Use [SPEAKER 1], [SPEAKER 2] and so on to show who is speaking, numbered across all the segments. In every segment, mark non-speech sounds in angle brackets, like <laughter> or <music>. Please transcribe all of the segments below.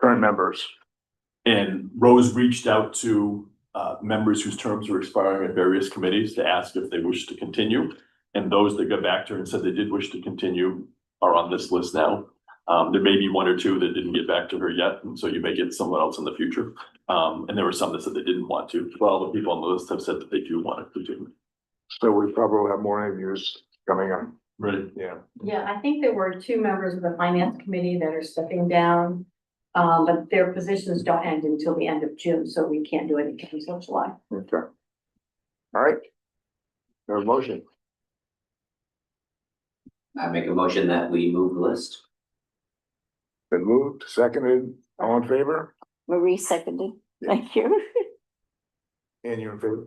[SPEAKER 1] current members.
[SPEAKER 2] And Rose reached out to uh members whose terms were expiring at various committees to ask if they wished to continue. And those that got back to her and said they did wish to continue are on this list now. Um, there may be one or two that didn't get back to her yet, and so you may get someone else in the future. Um, and there were some that said they didn't want to. Well, the people on the list have said that they do want to continue.
[SPEAKER 1] So we probably have more interviews coming up.
[SPEAKER 2] Right.
[SPEAKER 1] Yeah.
[SPEAKER 3] Yeah, I think there were two members of the finance committee that are stepping down. Um, but their positions don't end until the end of June, so we can't do anything until July.
[SPEAKER 1] Okay. All right. There's a motion.
[SPEAKER 4] I make a motion that we move the list. <laughs>
[SPEAKER 1] Been moved, seconded, all in favor?
[SPEAKER 5] Marie seconded.
[SPEAKER 1] Yeah.
[SPEAKER 5] Thank you.
[SPEAKER 1] And you're in favor?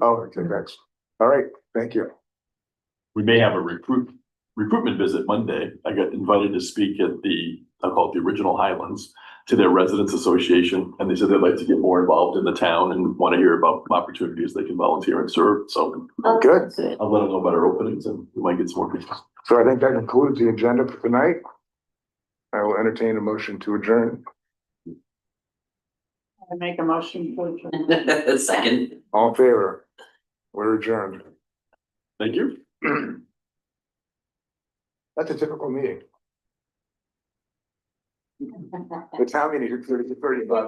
[SPEAKER 1] Oh, okay, thanks. All right, thank you.
[SPEAKER 2] we may have a recruit, recruitment visit Monday. I got invited to speak at the, I call it the original Highlands, to their residents association, and they said they'd like to get more involved in the town and want to hear about opportunities they can volunteer and serve, so
[SPEAKER 1] Good.
[SPEAKER 5] Good.
[SPEAKER 2] I'll let them know about our openings and we might get some more people.
[SPEAKER 1] So I think that concludes the agenda for tonight. I will entertain a motion to adjourn.
[SPEAKER 3] Make a motion for
[SPEAKER 4] Second.
[SPEAKER 1] All in favor? We're adjourned. <clears throat>
[SPEAKER 2] Thank you.
[SPEAKER 1] That's a typical meeting. The town meeting is thirty, thirty-five.